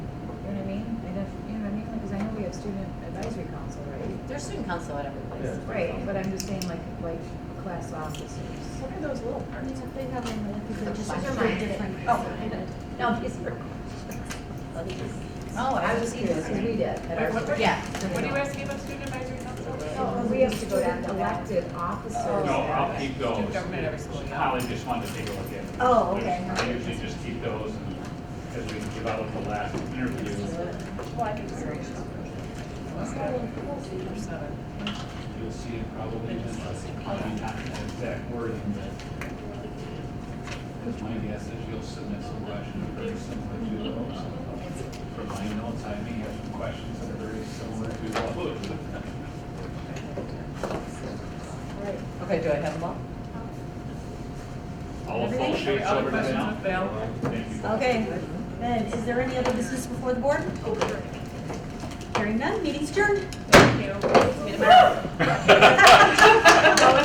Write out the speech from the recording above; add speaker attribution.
Speaker 1: student advisory council, right?
Speaker 2: There's student council at every place.
Speaker 3: Yeah.
Speaker 1: Right, but I'm just saying like, like class officers. What are those little parts?
Speaker 4: They have them, I think they're just
Speaker 2: Fine.
Speaker 4: very different.
Speaker 1: Oh, I know.
Speaker 2: No, these are. Let me just- Oh,
Speaker 1: I
Speaker 2: I
Speaker 1: was
Speaker 2: just
Speaker 1: just curious, because we did at our.
Speaker 5: What- what-
Speaker 2: Yeah.
Speaker 5: What are you asking about student advisory council?
Speaker 1: No, Oh, we have to go to elected officers.
Speaker 6: Oh, No, I'll keep those.
Speaker 5: Student government every school, yeah.
Speaker 6: Holly just wanted to take a look at them.
Speaker 1: Oh, okay.
Speaker 6: I usually just keep those and, as we give out the last interview.
Speaker 5: Well, I think it's very Seven.
Speaker 6: You'll see it probably in the, probably not in the exact wording, but that's my guess is you'll submit some questions very similar to those. From my notes, I may have some questions that are very similar to those.
Speaker 2: Okay, do I have them all?
Speaker 6: All the full sheets
Speaker 5: Other
Speaker 6: over to
Speaker 5: questions
Speaker 6: now.
Speaker 5: with Val?
Speaker 6: Thank
Speaker 1: Oh,
Speaker 6: you.
Speaker 7: Okay, Mm-hmm. then, is there any other business
Speaker 2: Oh,
Speaker 7: before the board? Hearing none, meeting's adjourned.
Speaker 5: Thank you. Meet 'em out.